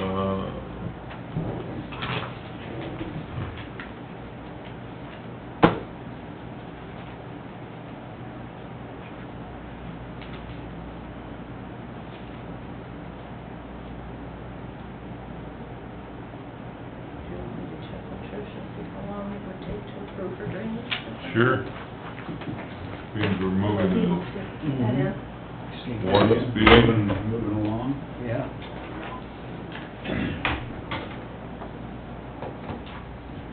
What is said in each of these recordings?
Uh, Sure. Means we're moving Mhm. Mm-hmm. One speed. Moving along. Yeah.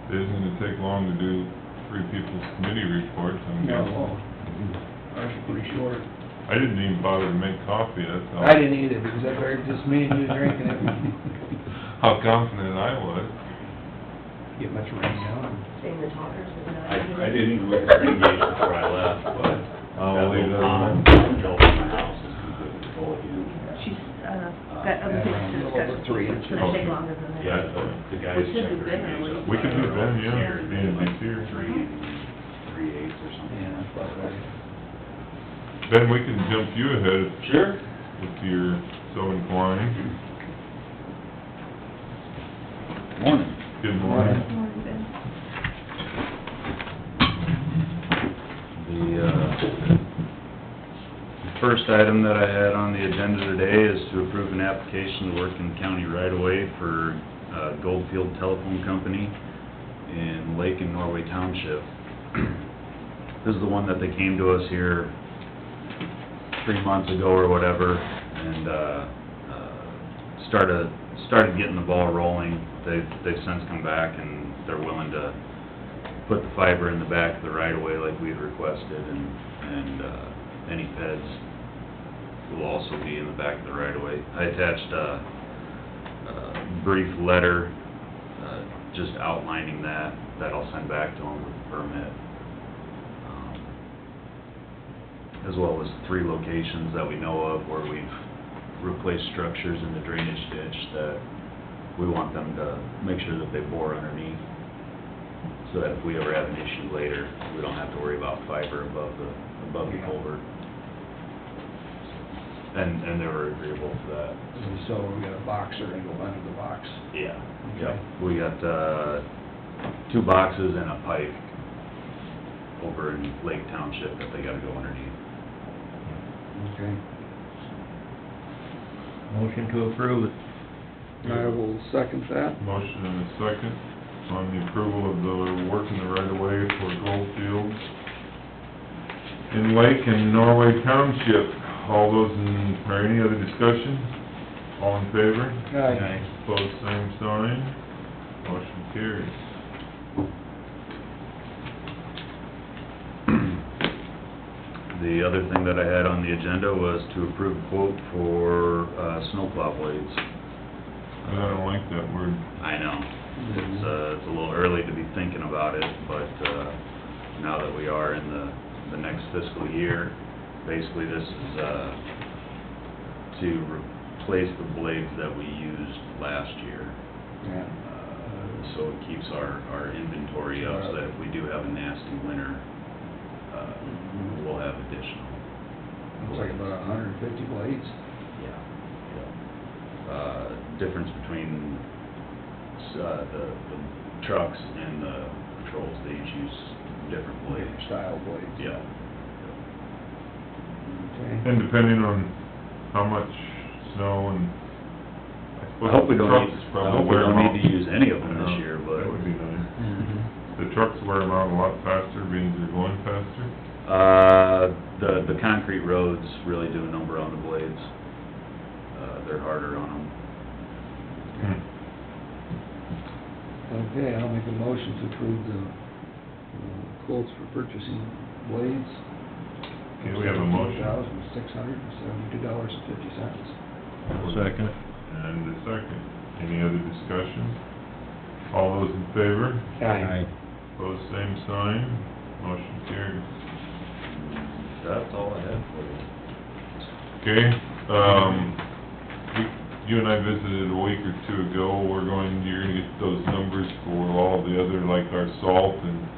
it isn't gonna take long to do three people's committee reports, I'm guessing. No, ours are pretty short. I didn't even bother to make coffee, that's how. I didn't either, because I heard just me and you drinking it. How confident I was. Get much rain down. Saying the talkers is not. I, I didn't look at the engagement before I left, but. I'll leave that alone. Control from my house is good control of you. She's, uh, got other things to discuss. Over three It's inches. gonna take longer than that. Yeah, so the guys We should checked do Ben their early. engagement. We could do Ben, yeah, Here, being they're like he's here. Three, three eighths or something. Yeah, I thought that- Ben, we can jump you ahead Sure. if you're so inclined. Morning. Good morning. Morning, Ben. The, uh, first item that I had on the agenda today is to approve an application to work in county right away for uh, Goldfield Telephone Company in Lake and Norway Township. This is the one that they came to us here three months ago or whatever, and, uh, uh, started, started getting the ball rolling. They've, they've since come back and they're willing to put the fiber in the back of the right of way like we had requested and, and, uh, any feds will also be in the back of the right of way. I attached a, a brief letter, uh, just outlining that, that I'll send back to them with the permit. Um, As well as three locations that we know of where we've replaced structures in the drainage ditch that we want them to make sure that they bore underneath so that if we ever have an issue later, we don't have to worry about fiber above the, above the culvert. And, and they were agreeable to that. And So we got a boxer and go under the box. Yeah. Okay. Yep, we got, uh, two boxes and a pipe over in Lake Township that they gotta go underneath. Okay. Motion to approve it. I will second that. Motion and a second on the approval of the work in the right of way for Goldfields in Lake and Norway Township. All those in, or any other discussion? All in favor? Aye. Opposed, same sign. Motion carries. The other thing that I had on the agenda was to approve quote for, uh, snowplow blades. I don't like that word. I know. Mm-hmm. It's, uh, it's a little early to be thinking about it, but, uh, now that we are in the, the next fiscal year, basically this is, uh, to replace the blades that we used last year. Yeah. Uh, So it keeps our, our inventory up so that if we do have a nasty winter, uh, we'll have additional. Mm-hmm. Looks like about a hundred and fifty blades. Yeah, yeah. Uh, difference between, uh, the, the trucks and the patrols, they each use different different blades. Style blades. Yeah. Okay. And depending on how much snow and, I I hope we suppose the don't trucks need, I probably hope we wear them don't out. need to use any of them this year, but, That would be nice. Mhm. The trucks wear them out a lot faster, means they're going faster. uh, the, the concrete roads really do a number on the blades. Uh, they're harder on them. Hmm. Okay, I'll make a motion to approve the uh, quotes for purchasing blades. Okay, we have a motion. Thousand six hundred and seventy-two dollars and fifty cents. Second. And a second. Any other discussion? All those in favor? Pose same sign. Motion carries. That's all I have for you. Okay, um, we- you and I visited a week or two ago. We're going, you're gonna get those numbers for all the other, like our salt and